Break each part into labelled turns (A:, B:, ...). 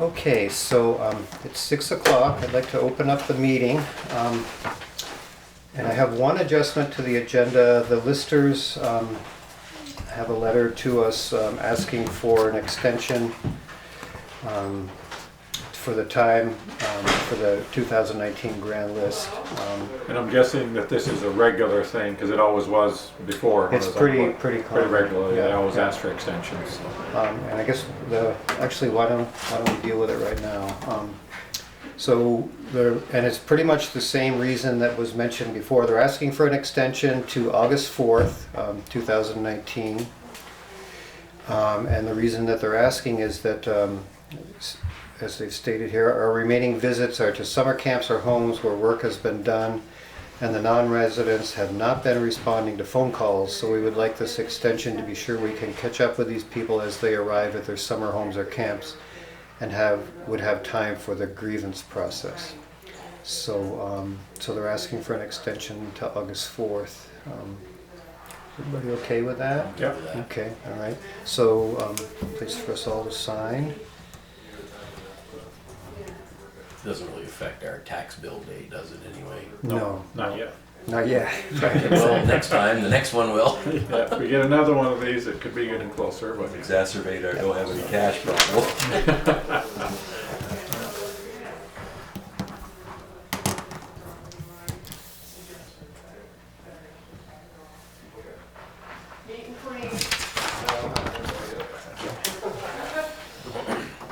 A: Okay, so um, it's six o'clock. I'd like to open up the meeting. Um, And I have one adjustment to the agenda. The listers um, have a letter to us um, asking for an extension um, for the time um, for the 2019 grand list. Um,
B: And I'm guessing that this is a regular thing, because it always was before. when
A: It's
B: I was on
A: pretty-
B: board.
A: pretty
B: Pretty
A: common,
B: regularly, they
A: yeah,
B: always
A: yeah.
B: ask for extensions.
A: Um, And I guess the, actually, why don't, why don't we deal with it right now? Um, So there, and it's pretty much the same reason that was mentioned before. They're asking for an extension to August 4th, um, 2019. Um, And the reason that they're asking is that, um, s- as they've stated here, our remaining visits are to summer camps or homes where work has been done and the non-residents have not been responding to phone calls, so we would like this extension to be sure we can catch up with these people as they arrive at their summer homes or camps and have, would have time for the grievance process. So, um, so they're asking for an extension to August 4th. Um, Everybody okay with that?
B: Yep.
A: Okay, all right. So, um, please for us all to sign.
C: Doesn't really affect our tax bill date, does it anyway?
A: No,
B: Not yet.
A: not yet. Right.
C: Well, next time, the next one will.
B: Yeah, If we get another one of these, it could be getting closer, but
D: exacerbate our don't have any cash problem.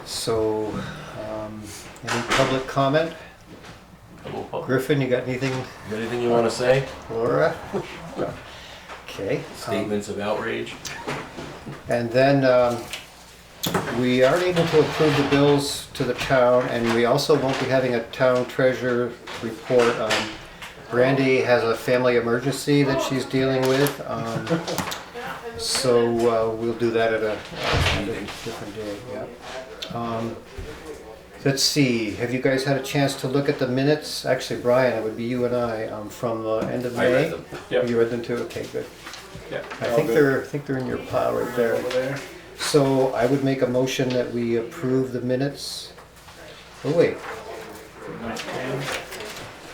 A: So, um, any public comment? Griffin, you got anything,
C: Got Anything you want to say?
A: Laura? Okay. um,
C: Statements of outrage?
A: And then um, we aren't able to approve the bills to the town, and we also won't be having a town treasurer report. Um, Brandy has a family emergency that she's dealing with, um, so uh, we'll do that at a at a different day, yeah. Um, Let's see, have you guys had a chance to look at the minutes? Actually, Brian, it would be you and I um, from the end of
C: I
A: May.
C: read them.
B: Yep.
A: You read them too? Okay, good.
B: yeah.
A: I
B: all
A: think
B: good.
A: they're, I think they're in your pile right there.
B: Over there.
A: So I would make a motion that we approve the minutes. Oh, wait.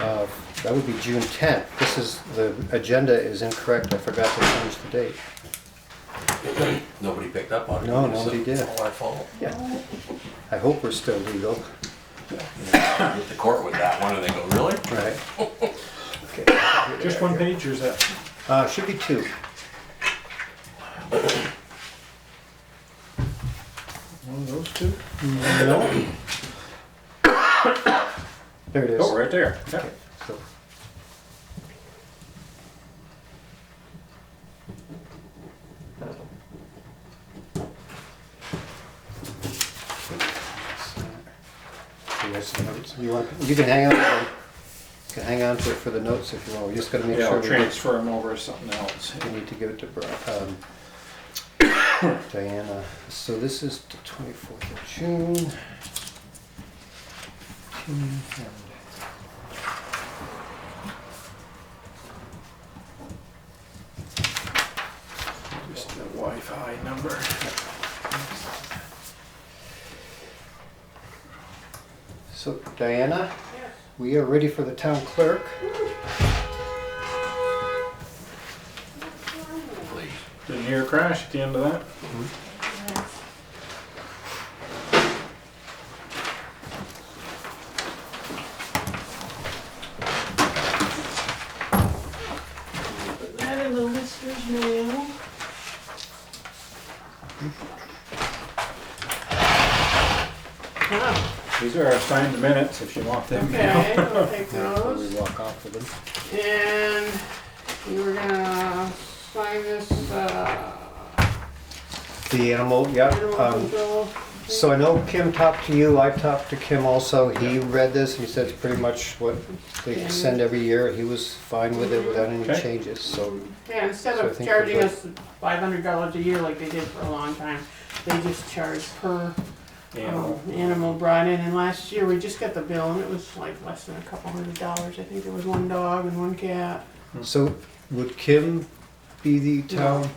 A: Uh, That would be June 10th. This is, the agenda is incorrect. I forgot to change the date.
C: Nobody picked up on it.
A: No, nobody
C: It's
A: did.
C: All our fault.
A: Yeah. I hope we're still legal.
C: Hit the court with that one and they go, really?
A: Right.
B: Just one page, or is that?
A: Uh, should be two.
B: One of those two?
A: No. There it is.
B: Oh, right there. Yeah.
A: So- You guys have notes? You want, you can hang on, to them. You can hang on to it for the notes if you want, we just gotta make
B: Yeah,
A: sure
B: I'll
A: we get-
B: transfer them over to something else.
A: we need to give it to Bri- um, Diana. So this is the twenty-fourth of June. June and-
B: Just the Wi-Fi number.
A: So Diana, we are ready for the town clerk.
C: Please.
B: Didn't hear a crash at the end of that?
E: Put that in the lister's mail. Ah,
B: These are our signed minutes, if you want them now.
E: okay, I'll take
A: Before we
E: those.
A: walk off with them.
E: And you were gonna sign this, uh,
A: The animal, yeah.
E: animal
A: um,
E: control.
A: So I know Kim talked to you, I talked to Kim also. He read this, he said it's pretty much what they send every year. He was fine with it without any
B: Okay.
A: changes, so.
E: Yeah, instead
A: So I
E: of
A: think
E: charging
A: we're
E: us five hundred dollars a year like they did for a long time, they just charge per
B: Yeah.
E: um, animal brought in. And last year, we just got the bill and it was like less than a couple hundred dollars. I think there was one dog and one cat.
A: So would Kim be the town